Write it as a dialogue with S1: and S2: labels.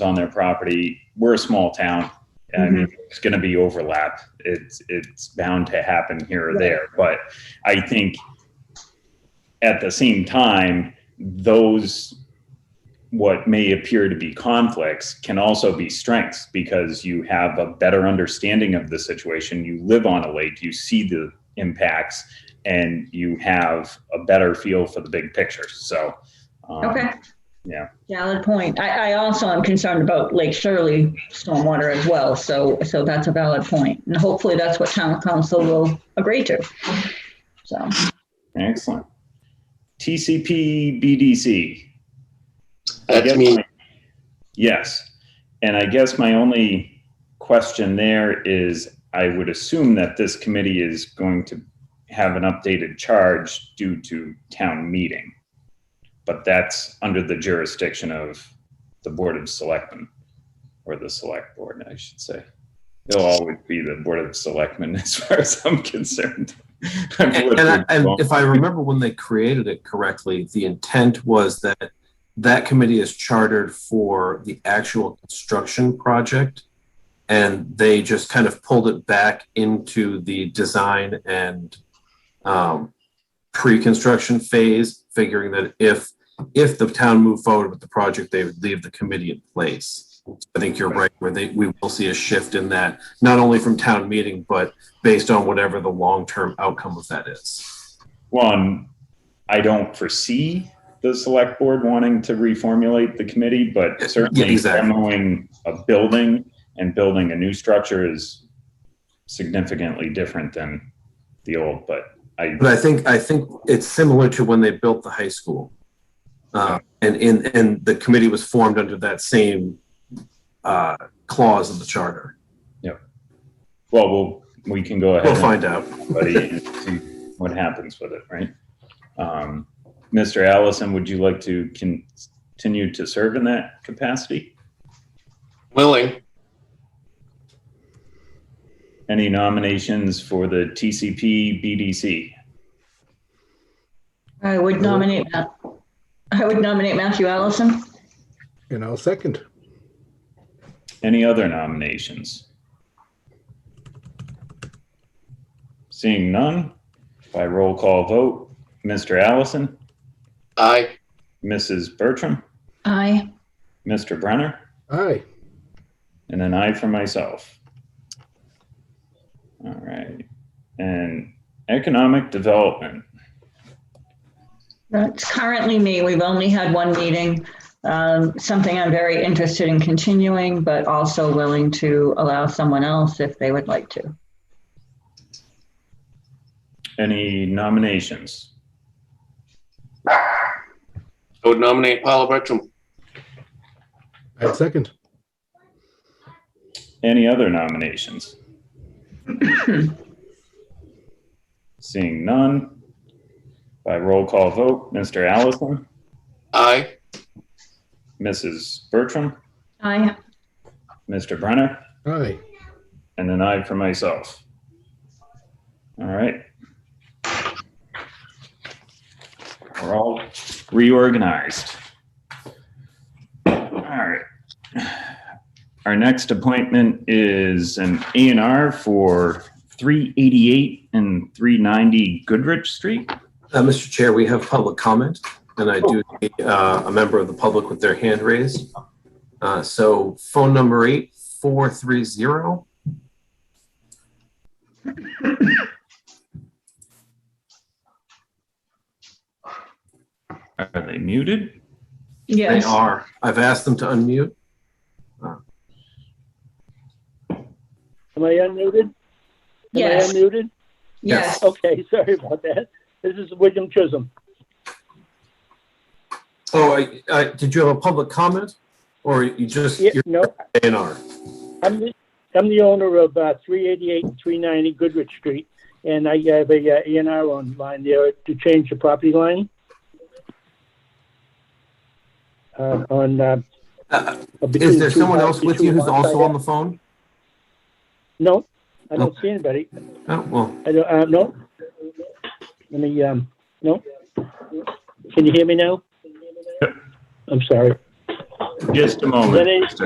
S1: on their property. We're a small town. I mean, it's going to be overlap. It's it's bound to happen here or there. But I think at the same time, those what may appear to be conflicts can also be strengths because you have a better understanding of the situation. You live on a lake, you see the impacts, and you have a better feel for the big picture. So, um,
S2: Okay.
S1: Yeah.
S2: Valid point. I, I also am concerned about Lake Shirley stormwater as well, so, so that's a valid point. And hopefully that's what town council will agree to. So,
S1: excellent. TCP BDC. I
S3: That's
S1: guess
S3: me.
S1: my- Yes. And I guess my only question there is, I would assume that this committee is going to have an updated charge due to town meeting. But that's under the jurisdiction of the Board of Selectmen, or the Select Board, I should say. They'll always be the Board of Selectmen as far as I'm concerned. I've lived
S4: And, I,
S1: here
S4: and
S1: long-
S4: if I remember when they created it correctly, the intent was that that committee is chartered for the actual construction project, and they just kind of pulled it back into the design and um, pre-construction phase, figuring that if if the town moved forward with the project, they would leave the committee in place. I think you're right. Where they we will see a shift in that, not only from town meeting, but based on whatever the long-term outcome of that is.
S1: One, I don't foresee the select board wanting to reformulate the committee, but
S4: Yeah,
S1: certainly
S4: exactly.
S1: demoing a building and building a new structure is significantly different than the old, but I,
S4: But I think, I think it's similar to when they built the high school. Uh, and, and, and the committee was formed under that same, uh, clause in the charter.
S1: well, we'll, we can go ahead.
S4: We'll
S1: and-
S4: find out.
S1: buddy, and see what happens with it, right? Um, Mr. Allison, would you like to con- continue to serve in that capacity?
S3: Willing.
S1: Any nominations for the TCP BDC?
S2: I would nominate, Ma- I would nominate Matthew Allison.
S5: And I'll second.
S1: Any other nominations? Seeing none, by roll call vote, Mr. Allison,
S3: Aye.
S1: Mrs. Bertram,
S2: Aye.
S1: Mr. Brenner,
S5: Aye.
S1: and an I for myself. All right. And economic development.
S2: That's currently me. We've only had one meeting. Um, something I'm very interested in continuing, but also willing to allow someone else if they would like to.
S1: Any nominations?
S3: I would nominate Paula Bertram.
S5: I'll second.
S1: Any other nominations? Seeing none, by roll call vote, Mr. Allison,
S3: Aye.
S1: Mrs. Bertram,
S2: Aye.
S1: Mr. Brenner,
S5: Aye.
S1: and an I for myself. All right. We're all reorganized. All right. Our next appointment is an A and R for 388 and 390 Goodrich Street.
S4: Uh, Mr. Chair, we have public comment, and I do see uh, a member of the public with their hand raised. Uh, so phone number eight, four, three, zero.
S1: Are they muted?
S4: They
S2: Yes.
S4: are. I've asked them to unmute.
S6: Am I unmuted?
S2: Yes.
S6: Am I unmuted?
S2: Yes.
S6: Okay, sorry about that. This is William Chisholm.
S4: Oh, I, I, did you have a public comment? Or you just,
S6: Yeah,
S4: you're
S6: no,
S4: A and R?
S6: I'm the, I'm the owner of uh, 388 and 390 Goodrich Street, and I have a uh, A&R on line there to change the property line. Uh, on uh,
S4: Uh,
S6: between
S4: Is there
S6: two
S4: someone
S6: lots,
S4: else with
S6: two
S4: you who's
S6: lots I
S4: also
S6: have.
S4: on the phone?
S6: No, I don't see anybody.
S4: Oh, well,
S6: I don't. Uh, no. Let me. Um, no. Can you hear me now? I'm sorry.
S1: Just a moment.
S6: Lenny?